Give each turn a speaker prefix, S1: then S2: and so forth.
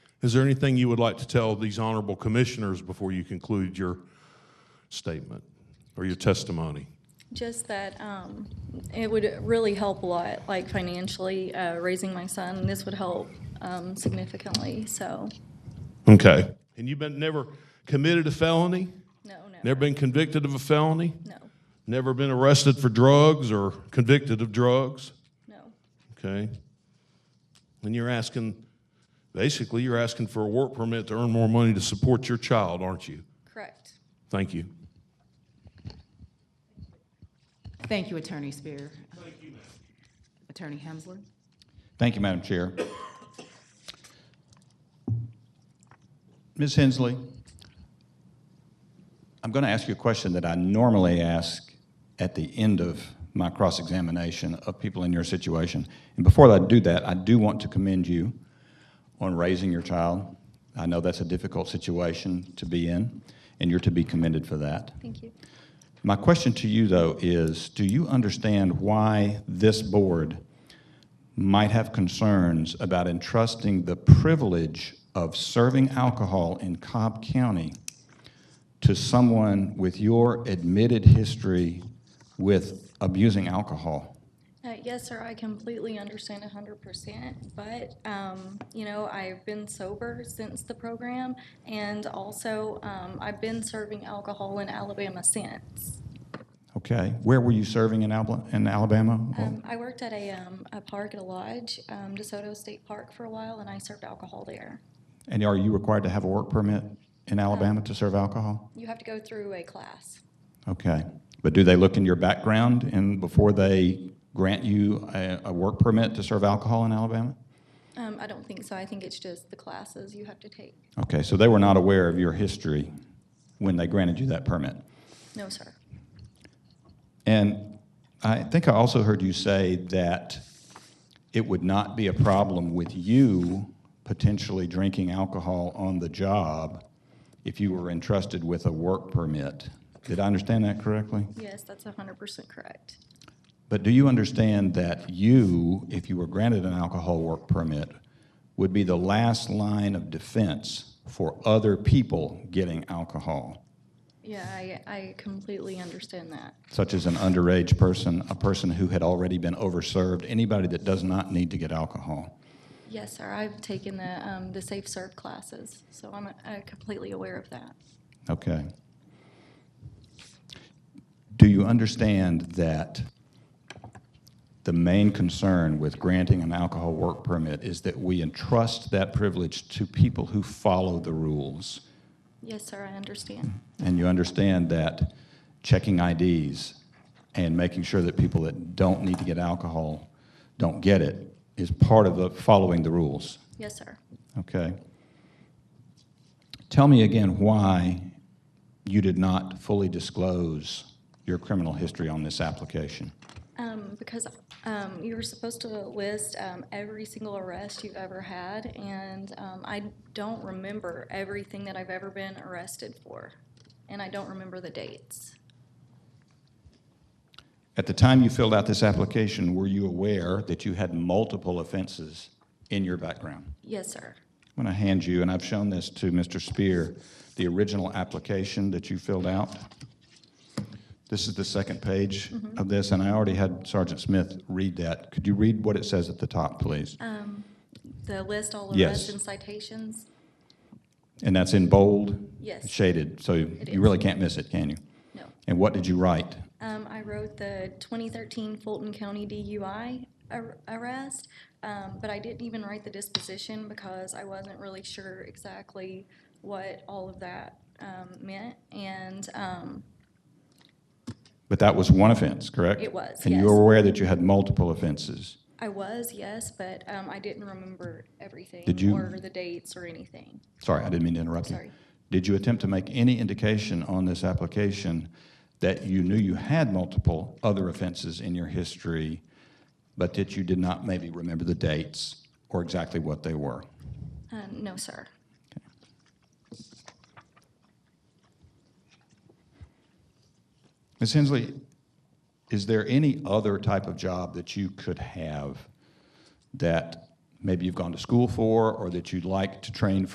S1: Is there anything you would like to tell these honorable commissioners before you conclude your statement or your testimony?
S2: Just that um, it would really help a lot, like financially, uh, raising my son. This would help um, significantly, so,
S1: Okay. And you've been never committed a felony?
S2: no, no.
S1: Never been convicted of a felony?
S2: No,
S1: Never been arrested for drugs or convicted of drugs?
S2: no,
S1: Okay. And you're asking, basically, you're asking for a work permit to earn more money to support your child, aren't you?
S2: correct.
S1: Thank you.
S3: Thank you, Attorney Spear. Thank you, Attorney Hemsworth.
S4: Thank you, Madam Chair. Ms. Hensley, I'm going to ask you a question that I normally ask at the end of my cross-examination of people in your situation. And before I do that, I do want to commend you on raising your child. I know that's a difficult situation to be in, and you're to be commended for that.
S2: Thank you.
S4: My question to you, though, is do you understand why this board might have concerns about entrusting the privilege of serving alcohol in Cobb County to someone with your admitted history with abusing alcohol?
S2: Uh, Yes, sir, I completely understand hundred percent, but, um, you know, I've been sober since the program, and also, um, I've been serving alcohol in Alabama since.
S4: Okay, where were you serving in Alba- in Alabama?
S2: Um, I worked at a, um, a park at a lodge, um, DeSoto State Park for a while, and I served alcohol there.
S4: And are you required to have a work permit in Alabama to serve alcohol?
S2: You have to go through a class.
S4: Okay. But do they look in your background and before they grant you a, a work permit to serve alcohol in Alabama?
S2: Um, I don't think so. I think it's just the classes you have to take.
S4: Okay, so they were not aware of your history when they granted you that permit.
S2: No, sir.
S4: And I think I also heard you say that it would not be a problem with you potentially drinking alcohol on the job if you were entrusted with a work permit. Did I understand that correctly?
S2: Yes, that's hundred percent correct.
S4: But do you understand that you, if you were granted an alcohol work permit, would be the last line of defense for other people getting alcohol,
S2: Yeah, I, I completely understand that.
S4: such as an underage person, a person who had already been overserved, anybody that does not need to get alcohol?
S2: Yes, sir. I've taken the, um, the Safe Serve classes, so I'm, uh, completely aware of that.
S4: Okay. Do you understand that the main concern with granting an alcohol work permit is that we entrust that privilege to people who follow the rules?
S2: Yes, sir, I understand.
S4: And you understand that checking IDs and making sure that people that don't need to get alcohol don't get it is part of the following the rules,
S2: Yes, sir.
S4: okay? Tell me again why you did not fully disclose your criminal history on this application.
S2: Um, because, um, you were supposed to list, um, every single arrest you've ever had, and, um, I don't remember everything that I've ever been arrested for, and I don't remember the dates.
S4: At the time you filled out this application, were you aware that you had multiple offenses in your background?
S2: Yes, sir.
S4: I'm going to hand you, and I've shown this to Mr. Spear, the original application that you filled out. This is the second page of this, and I already had Sergeant Smith read that. Could you read what it says at the top, please?
S2: Um, The list, all
S4: Yes.
S2: arrests and citations?
S4: And that's in bold?
S2: Yes.
S4: Shaded, so
S2: is.
S4: you really can't miss it, can you?
S2: No.
S4: And what did you write?
S2: Um, I wrote the 2013 Fulton County DUI ar- arrest, um, but I didn't even write the disposition because I wasn't really sure exactly what all of that um, meant. And um,
S4: But that was one offense, correct?
S2: It was,
S4: And
S2: yes.
S4: you were aware that you had multiple offenses?
S2: I was, yes, but um, I didn't remember everything
S4: Did you-
S2: or the dates or anything.
S4: Sorry, I didn't mean to interrupt you.
S2: Sorry.
S4: Did you attempt to make any indication on this application that you knew you had multiple other offenses in your history, but that you did not maybe remember the dates or exactly what they were?
S2: Uh, no, sir.
S4: Ms. Hensley, is there any other type of job that you could have that maybe you've gone to school for or that you'd like to train